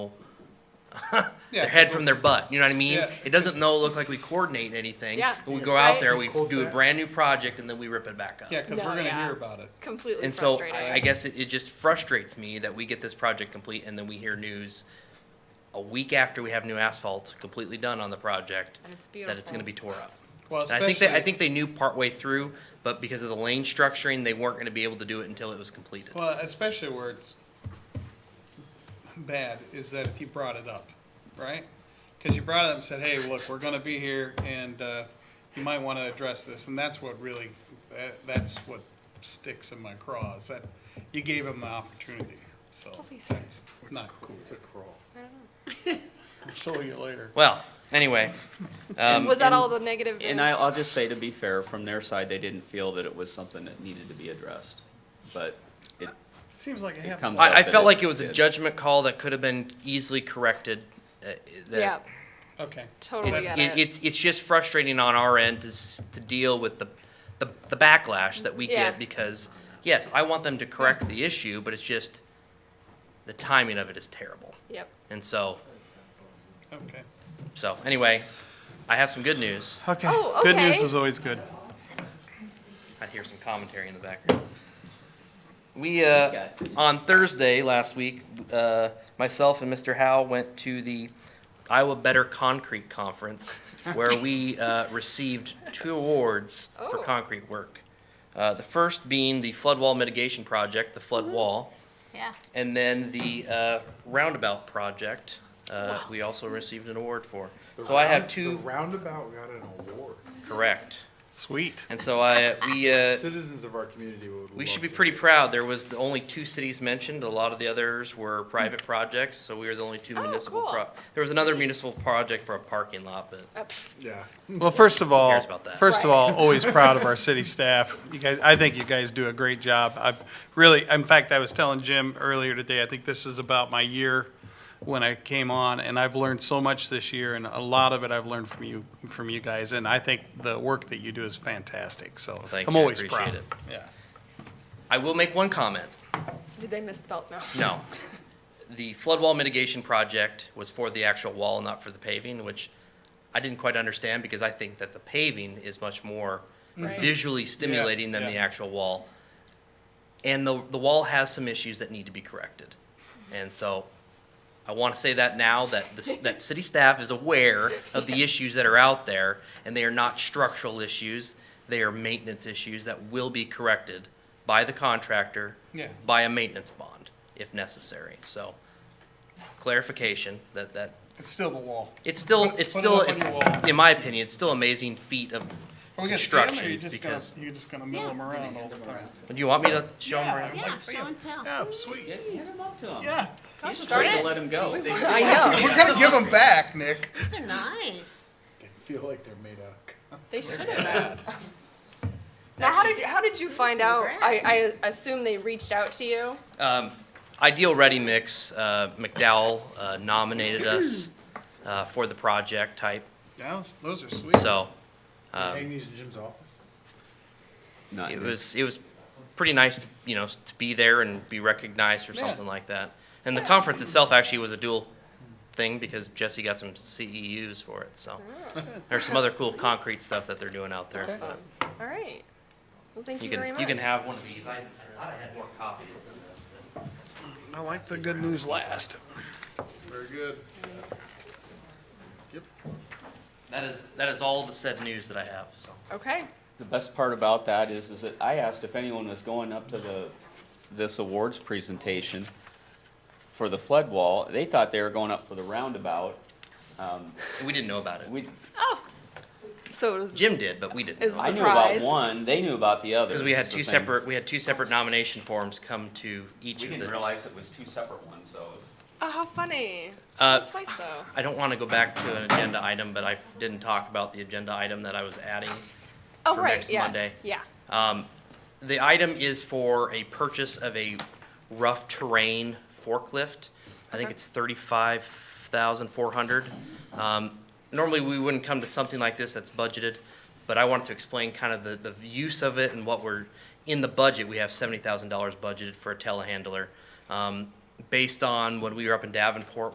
Yeah, their head 'cause from we're- their butt. You know what I mean? Yeah. It doesn't no look like we coordinate anything. Yeah, We go out right. there, we Cool do a that. brand new project, and then we rip it back up. Yeah, because No, we're gonna yeah. hear about it. Completely And so frustrating. I I guess it, it just frustrates me that we get this project complete and then we hear news a week after we have new asphalt completely done on the project And it's that it's gonna beautiful. be tore up. Well, And I think that, I especially- think they knew partway through, but because of the lane structuring, they weren't gonna be able to do it until it was completed. Well, especially where it's bad is that if you brought it up, right? Because you brought it up and said, "Hey, look, we're going to be here, and uh, you might want to address this," and that's what really that, that's what sticks in my craw is that you gave them the opportunity. So that's not cool. It's a craw. I'll show you later. Well, anyway, um, was that and- all the negative? And is? I, I'll just say, to be fair, from their side, they didn't feel that it was something that needed to be addressed. But it, Seems like it It happens. comes I, I that felt it like it was a did. judgment call that could have been easily corrected. uh, that- yeah, Okay. totally It's, get it- it. it's, it's just frustrating on our end to, s- to deal with the, the, the backlash that we Yeah. get because, yes, I want them to correct the issue, but it's just, the timing of it is terrible. yep. And so, Okay. so anyway, I have some good news. Okay. Oh, Good news okay. is always good. I hear some commentary in the background. We, uh, Got it. on Thursday last week, uh, myself and Mr. Howe went to the Iowa Better Concrete Conference where we, uh, received two awards for Oh. concrete work. Uh, the first being the flood wall mitigation project, the flood wall, Mm-hmm. Yeah. and then the, uh, roundabout project, uh, we also received an award for. So I have The two, roundabout got an award. correct. Sweet. And so I, we, uh, Citizens of our community would. We love should be to- pretty proud. There was only two cities mentioned. A lot of the others were private projects, so we were the only two Oh, municipal. cool. pro- There was another municipal project for a parking lot, but Up. Yeah. Well, first of all, cares about that? first of Right. all, always proud of our city staff. You guys, I think you guys do a great job. I've really, in fact, I was telling Jim earlier today, I think this is about my year when I came on, and I've learned so much this year, and a lot of it I've learned from you, from you guys, and I think the work that you do is fantastic, so thank I'm you. I always appreciate proud. it. Yeah. I will make one comment. Did they misspell? No. No. The flood wall mitigation project was for the actual wall, not for the paving, which I didn't quite understand because I think that the paving is much more Mm-hmm. Right. visually stimulating than the yeah. actual wall. And the, the wall has some issues that need to be corrected. And so I want to say that now that the, that city staff is aware of the issues that are out there and they are not structural issues. They are maintenance issues that will be corrected by the contractor Yeah. by a maintenance bond if necessary. So clarification that, that, It's still the wall. it's still, Put- it's put it still, up on it's, your wall. in my opinion, it's still amazing feat of Are we gonna stand there, or construction you just gonna- because- You're just gonna mill them around all the time. Do you want me to show them around? Yeah, show and tell. Yeah, Oh, Yeah, sweet. you hit 'em up to 'em. Yeah, You just darn tried to it. let 'em go. I know. we're gonna give them back, Nick. These are nice. They feel like they're made out of. They should have. Now, how did how did you find out? I, I assume they reached out to you. Um, Ideal Ready Mix, uh, McDowell uh, nominated us uh, for the project type, Yeah, those are sweet. so Um, Hang these in Jim's office. Not it you. was, it was pretty nice, to you know, to be there and be recognized for Yeah. something like that. And the conference itself actually was a dual thing because Jesse got some CEUs for it, so. There's some other cool concrete stuff that they're doing out there. Awesome. but All right. Well, thank You you, can, very you much. can have one of these. I I thought I had more copies than this. but- I like the good news last. Very good. That is, that is all the said news that I have, so. okay. The best part about that is, is that I asked if anyone was going up to the, this awards presentation for the flood wall. They thought they were going up for the roundabout. Um, We didn't know about it. we, So it was Jim did, but we didn't. Is- I knew about Surprise. one, they knew about the other. Because we had is the two thing. separate, we had two separate nomination forms come to each We of didn't the. realize it was two separate ones, so. oh how funny. Uh, That's nice though. I don't want to go back to an agenda item, but I f- didn't talk about the agenda item that I was adding. Oh for right. next yes. Monday. Yeah. Um, The item is for a purchase of a rough terrain forklift. I think it's thirty-five thousand four hundred. Um, Normally, we wouldn't come to something like this that's budgeted, but I wanted to explain kind of the, the use of it and what we're, in the budget, we have seventy thousand dollars budgeted for a telehandler. Um, Based on when we were up in Davenport,